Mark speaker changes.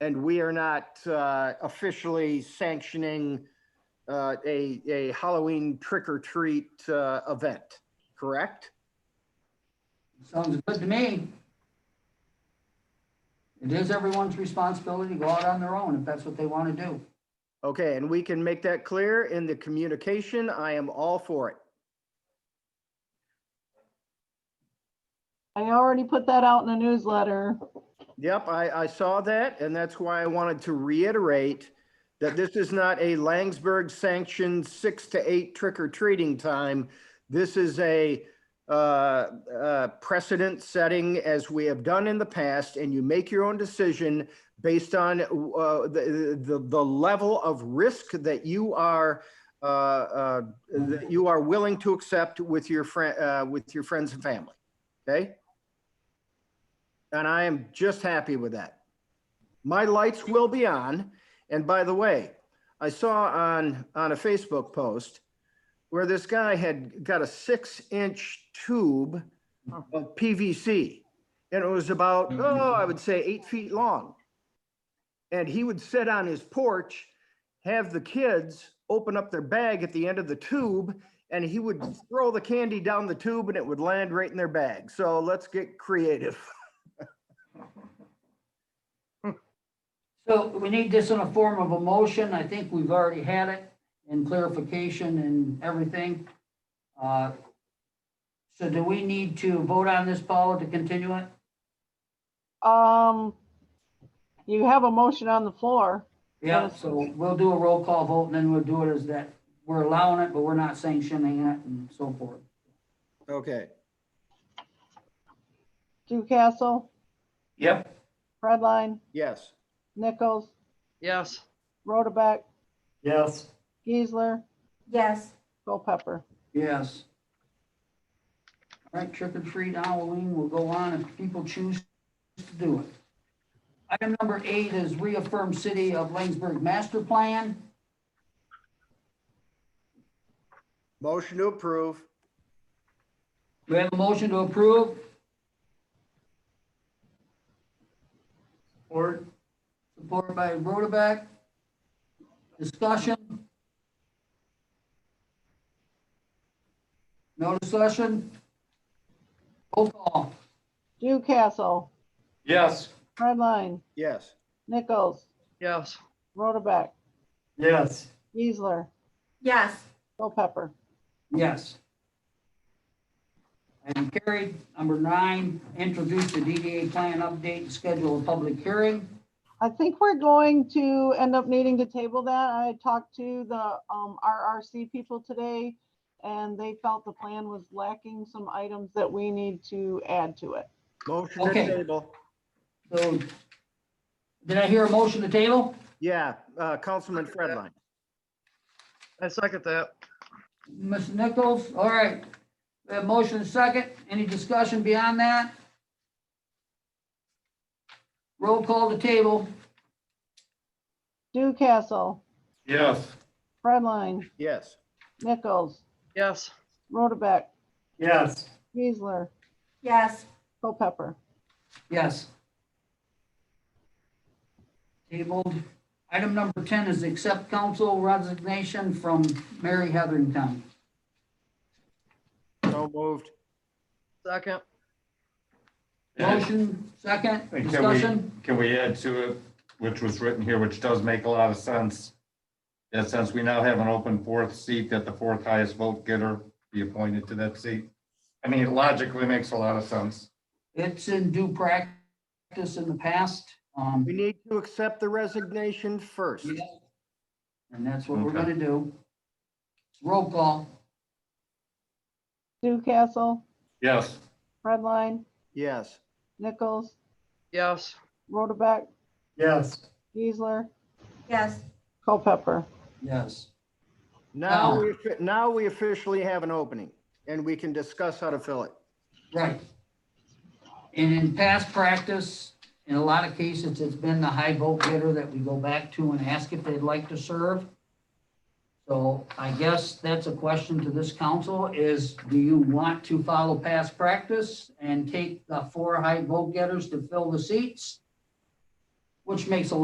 Speaker 1: and we are not uh, officially sanctioning uh, a, a Halloween trick or treat uh, event, correct?
Speaker 2: Sounds good to me. It is everyone's responsibility to go out on their own if that's what they want to do.
Speaker 1: Okay, and we can make that clear in the communication. I am all for it.
Speaker 3: I already put that out in the newsletter.
Speaker 1: Yep, I, I saw that, and that's why I wanted to reiterate that this is not a Langsberg sanctioned six to eight trick or treating time. This is a uh, uh, precedent setting as we have done in the past, and you make your own decision based on uh, the, the, the level of risk that you are, uh, uh, that you are willing to accept with your friend, uh, with your friends and family. Okay? and I am just happy with that. My lights will be on. And by the way, I saw on, on a Facebook post where this guy had got a six inch tube of PVC. And it was about, oh, I would say eight feet long. And he would sit on his porch, have the kids open up their bag at the end of the tube, and he would throw the candy down the tube and it would land right in their bag. So let's get creative.
Speaker 2: So we need this in a form of a motion. I think we've already had it in clarification and everything. Uh, So do we need to vote on this, Paula, to continue it?
Speaker 3: Um, you have a motion on the floor.
Speaker 2: Yeah, so we'll do a roll call vote and then we'll do it as that we're allowing it, but we're not sanctioning it and so forth.
Speaker 1: Okay.
Speaker 3: Ducastle,
Speaker 2: Yep.
Speaker 3: Redline,
Speaker 1: Yes.
Speaker 3: Nichols,
Speaker 4: Yes,
Speaker 3: Rotabeck,
Speaker 2: Yes.
Speaker 3: Geisler,
Speaker 5: Yes,
Speaker 3: Culpepper.
Speaker 2: Yes. All right, trick or treat Halloween will go on if people choose to do it. Item number eight is reaffirm city of Langsberg master plan.
Speaker 1: Motion to approve.
Speaker 2: Do we have a motion to approve? Support. Support by Rotaback. Discussion? No discussion? Roll call.
Speaker 3: Ducastle,
Speaker 6: Yes.
Speaker 3: Redline,
Speaker 1: Yes.
Speaker 3: Nichols,
Speaker 4: yes,
Speaker 3: Rotabeck,
Speaker 6: Yes.
Speaker 3: Geisler,
Speaker 5: yes,
Speaker 3: Culpepper.
Speaker 2: Yes. And carried. Number nine, introduce the DDA plan update, and schedule a public hearing.
Speaker 3: I think we're going to end up needing to table that. I had talked to the um, RRC people today and they felt the plan was lacking some items that we need to add to it.
Speaker 1: Motion to
Speaker 2: Okay.
Speaker 1: table.
Speaker 2: So did I hear a motion to table?
Speaker 1: Yeah, uh, Councilman Fredline.
Speaker 4: I second that.
Speaker 2: Ms. Nichols, all right. We have motion and second. Any discussion beyond that? Roll call to table.
Speaker 3: Ducastle,
Speaker 6: Yes.
Speaker 3: Redline,
Speaker 1: Yes.
Speaker 3: Nichols,
Speaker 4: Yes,
Speaker 3: Rotabeck,
Speaker 6: Yes.
Speaker 3: Geisler,
Speaker 5: yes,
Speaker 3: Culpepper.
Speaker 2: Yes. Tabled. Item number 10 is accept council resignation from Mary Heatherington.
Speaker 1: So moved.
Speaker 4: second,
Speaker 2: Motion, second,
Speaker 6: Can we-
Speaker 2: discussion?
Speaker 6: Can we add to it, which was written here, which does make a lot of sense? That since we now have an open fourth seat, that the fourth highest vote getter be appointed to that seat. I mean, it logically makes a lot of sense.
Speaker 2: It's in due practice in the past. um,
Speaker 1: We need to accept the resignation first.
Speaker 2: Yeah. And that's what we're
Speaker 6: Okay.
Speaker 2: gonna do. Roll call,
Speaker 3: Ducastle,
Speaker 6: Yes.
Speaker 3: Redline,
Speaker 1: Yes.
Speaker 3: Nichols,
Speaker 4: yes,
Speaker 3: Rotabeck,
Speaker 6: Yes.
Speaker 3: Geisler,
Speaker 5: yes,
Speaker 3: Culpepper.
Speaker 2: yes.
Speaker 1: Now,
Speaker 2: Ah.
Speaker 1: we now we officially have an opening and we can discuss how to fill it.
Speaker 2: Right. And in past practice, in a lot of cases, it's been the high vote getter that we go back to and ask if they'd like to serve. So I guess that's a question to this council is, do you want to follow past practice and take the four high vote getters to fill the seats? Which makes a lot